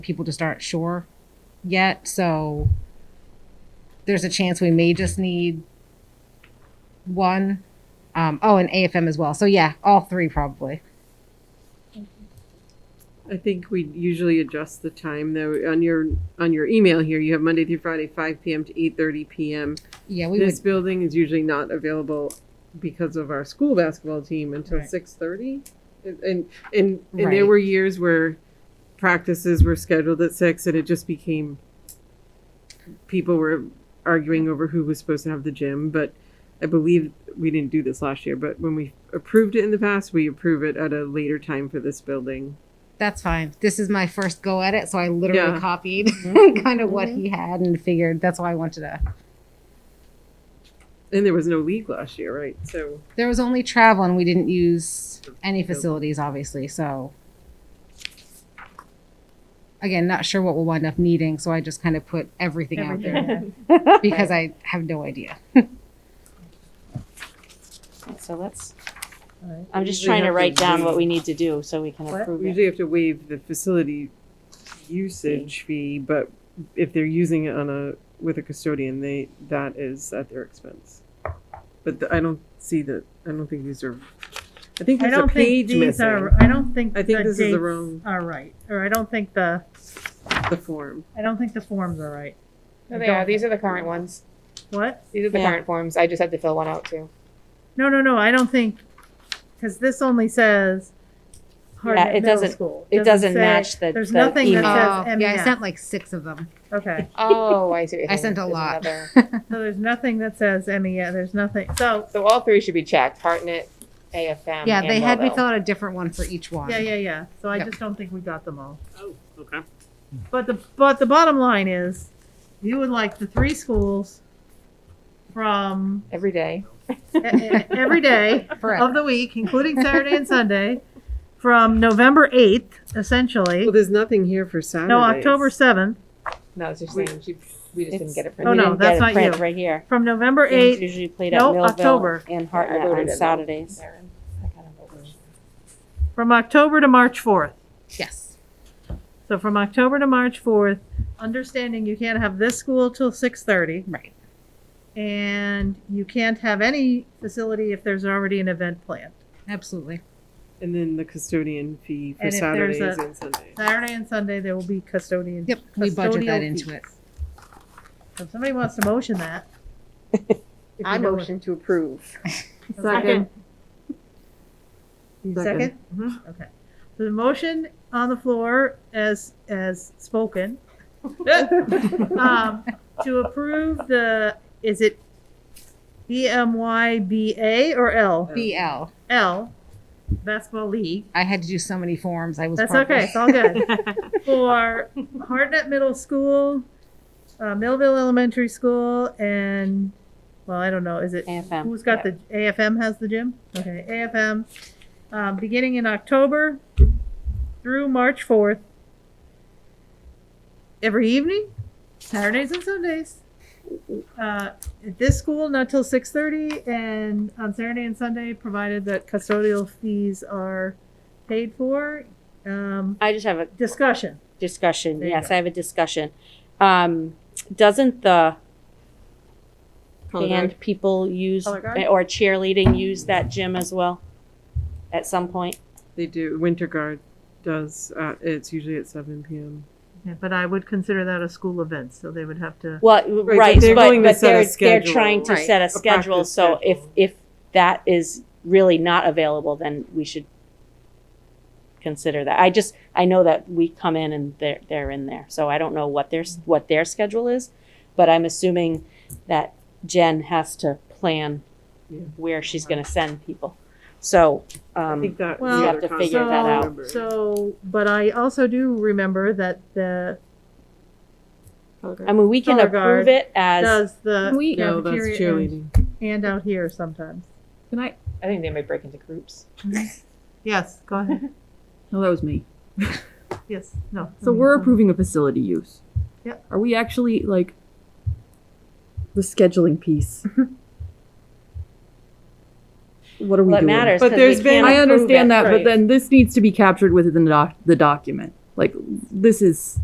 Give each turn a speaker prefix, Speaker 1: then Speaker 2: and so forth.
Speaker 1: people just aren't sure yet. So there's a chance we may just need one. Um, oh, and AFM as well. So yeah, all three probably.
Speaker 2: I think we usually adjust the time though. On your on your email here, you have Monday through Friday, five PM to eight thirty PM.
Speaker 1: Yeah, we
Speaker 2: This
Speaker 1: would.
Speaker 2: building is usually not available because of our school basketball team until
Speaker 1: Right.
Speaker 2: six thirty. And and and there
Speaker 1: Right.
Speaker 2: were years where practices were scheduled at six and it just became people were arguing over who was supposed to have the gym, but I believe we didn't do this last year, but when we approved it in the past, we approve it at a later time for this building.
Speaker 1: That's fine. This is my first go at it, so I literally
Speaker 2: Yeah.
Speaker 1: copied kind of what he had and figured that's why I wanted to.
Speaker 2: And there was no league last year, right? So
Speaker 1: There was only travel, and we didn't use any facilities, obviously. So again, not sure what we'll wind up needing. So I just kind of put everything, out there because I have no idea.
Speaker 3: So let's,
Speaker 4: Alright.
Speaker 3: I'm just
Speaker 2: Usually
Speaker 3: trying to
Speaker 2: have to
Speaker 3: write down what
Speaker 2: waive-
Speaker 3: we need to do so we can
Speaker 4: What?
Speaker 3: approve
Speaker 2: we
Speaker 3: it.
Speaker 2: usually have to waive the facility usage fee, but if they're using it on a with a custodian, they that is at their expense. But the, I don't see that. I don't think these are. I think
Speaker 4: I
Speaker 2: there's a
Speaker 4: don't think
Speaker 2: page
Speaker 4: these
Speaker 2: missing.
Speaker 4: are, I don't think
Speaker 2: I
Speaker 4: the
Speaker 2: think this is the
Speaker 4: dates
Speaker 2: wrong-
Speaker 4: are right, or I don't think the,
Speaker 2: the form.
Speaker 4: I don't think the forms are right.
Speaker 5: No,
Speaker 4: I
Speaker 5: they
Speaker 4: don't-
Speaker 5: are. These are the current ones.
Speaker 4: What?
Speaker 5: These are the
Speaker 3: Yeah.
Speaker 5: current forms. I just had to fill one out too.
Speaker 4: No, no, no, I don't think, because this only says
Speaker 3: Yeah,
Speaker 4: Hardwick
Speaker 3: it
Speaker 4: Middle
Speaker 3: doesn't-
Speaker 4: School.
Speaker 3: It doesn't
Speaker 4: say-
Speaker 3: match the,
Speaker 4: There's
Speaker 3: the
Speaker 4: nothing
Speaker 3: email.
Speaker 4: that says
Speaker 1: yeah, I
Speaker 4: MES.
Speaker 1: sent like six of them.
Speaker 4: Okay,
Speaker 5: Oh, I see. what you're
Speaker 1: I
Speaker 5: saying.
Speaker 1: sent a
Speaker 5: There's
Speaker 1: lot.
Speaker 5: another-
Speaker 4: so there's nothing that says MES, there's nothing, so,
Speaker 5: So all three should be checked. Hartnett, AFM.
Speaker 1: yeah,
Speaker 5: and
Speaker 1: they had me
Speaker 5: Wellville.
Speaker 1: fill out a different one for each one.
Speaker 4: yeah, yeah, yeah, so I
Speaker 1: Yep.
Speaker 4: just don't think we got them all.
Speaker 6: Oh, okay.
Speaker 4: But the, but the bottom line is, you would like the three schools from
Speaker 5: every day.
Speaker 4: e- e- every day.
Speaker 1: Forever.
Speaker 4: of the week, including Saturday and Sunday, from November 8th, essentially.
Speaker 2: Well, there's nothing here for Saturday.
Speaker 4: No, October 7th,
Speaker 5: No, it's just
Speaker 2: We-
Speaker 5: saying she, we just didn't
Speaker 3: It's-
Speaker 5: get it.
Speaker 3: we
Speaker 5: printed.
Speaker 4: Oh, no,
Speaker 3: didn't get
Speaker 4: that's
Speaker 3: it
Speaker 4: not
Speaker 3: printed
Speaker 4: you.
Speaker 3: Right here.
Speaker 4: from November
Speaker 3: It's
Speaker 4: 8th.
Speaker 3: usually played
Speaker 4: no,
Speaker 3: at Millville
Speaker 4: October.
Speaker 3: and
Speaker 5: Yeah, I
Speaker 3: Hartnett
Speaker 5: wrote it in
Speaker 3: on
Speaker 5: there.
Speaker 3: Saturdays.
Speaker 5: I kind of wrote it.
Speaker 4: from October to March 4th.
Speaker 1: Yes.
Speaker 4: So from October to March 4th, understanding you can't have this school till 6:30,
Speaker 1: Right.
Speaker 4: and you can't have any facility if there's already an event planned.
Speaker 1: Absolutely.
Speaker 2: And then the custodian fee for
Speaker 4: And if there's
Speaker 2: Saturdays
Speaker 4: a-
Speaker 2: and Sundays.
Speaker 4: Saturday and Sunday, there will be custodian.
Speaker 1: Yep. We budget that
Speaker 4: custodial
Speaker 1: into
Speaker 4: fees.
Speaker 1: it.
Speaker 4: So if somebody wants to motion that. if
Speaker 5: I
Speaker 4: you know what-
Speaker 5: motion to approve.
Speaker 2: Second.
Speaker 4: Second?
Speaker 2: Mhm.
Speaker 4: Okay. So the motion on the floor as, as spoken, um, to approve the, is it BMYBA or L?
Speaker 1: BL.
Speaker 4: L, Basketball League.
Speaker 1: I had to do so many forms. I was.
Speaker 4: That's
Speaker 1: probably-
Speaker 4: okay, it's all good. For Hartnett Middle School, uh, Millville Elementary School, and, well, I don't know, is it
Speaker 3: AFM.
Speaker 4: Who's got the, AFM has the gym? Okay, AFM, um, beginning in October through March fourth. Every evening, Saturdays and Sundays. Uh, at this school, not till six thirty, and on Saturday and Sunday, provided that custodial fees are paid for. Um,
Speaker 3: I just have a
Speaker 4: discussion,
Speaker 3: discussion.
Speaker 4: There you
Speaker 3: Yes, I
Speaker 4: go.
Speaker 3: have a discussion. Um, doesn't the
Speaker 2: Color guard.
Speaker 3: band people use,
Speaker 4: Color guard?
Speaker 3: or cheerleading use that gym as well? At some point?
Speaker 2: They do. Winter guard does. Uh, it's usually at seven p.m.
Speaker 4: Yeah, but I would consider that a school event, so they would have to,
Speaker 3: Well,
Speaker 2: but
Speaker 3: right,
Speaker 2: they're
Speaker 3: but,
Speaker 2: going to
Speaker 3: but
Speaker 2: set a
Speaker 3: they're, they're
Speaker 2: schedule.
Speaker 3: trying to
Speaker 1: Right.
Speaker 3: set a
Speaker 2: practice
Speaker 3: schedule, so if,
Speaker 2: schedule.
Speaker 3: if that is really not available, then we should consider that. I just, I know that we come in and they're, they're in there, so I don't know what their, s- what their schedule is, but I'm assuming that Jen has to plan
Speaker 2: Yeah.
Speaker 3: where she's gonna send people. So,
Speaker 2: I think
Speaker 3: um,
Speaker 2: that
Speaker 4: Well,
Speaker 2: the
Speaker 4: You
Speaker 3: have
Speaker 2: other
Speaker 3: to figure
Speaker 2: concept
Speaker 3: that
Speaker 2: I
Speaker 3: out.
Speaker 2: remember.
Speaker 4: so, but I also do remember that the
Speaker 3: I mean, we can
Speaker 4: Color
Speaker 3: approve
Speaker 4: guard
Speaker 3: it as,
Speaker 4: does the
Speaker 5: We-
Speaker 2: No, that's
Speaker 4: cafeteria and-
Speaker 2: cheerleading.
Speaker 4: and out here sometimes.
Speaker 7: Can I?
Speaker 5: I think they might break into groups.
Speaker 4: Yes, go ahead.
Speaker 7: No, that was me.
Speaker 4: Yes, no.
Speaker 7: So we're approving a facility use.
Speaker 4: Yep.
Speaker 7: Are we actually like the scheduling piece? what are we
Speaker 3: what
Speaker 7: doing?
Speaker 3: matters,
Speaker 2: But
Speaker 3: 'cause we
Speaker 2: there's been-
Speaker 3: can't
Speaker 7: I
Speaker 3: approve it.
Speaker 7: understand that,
Speaker 2: right.
Speaker 7: but then this needs to be captured within the, doc- the document. Like this is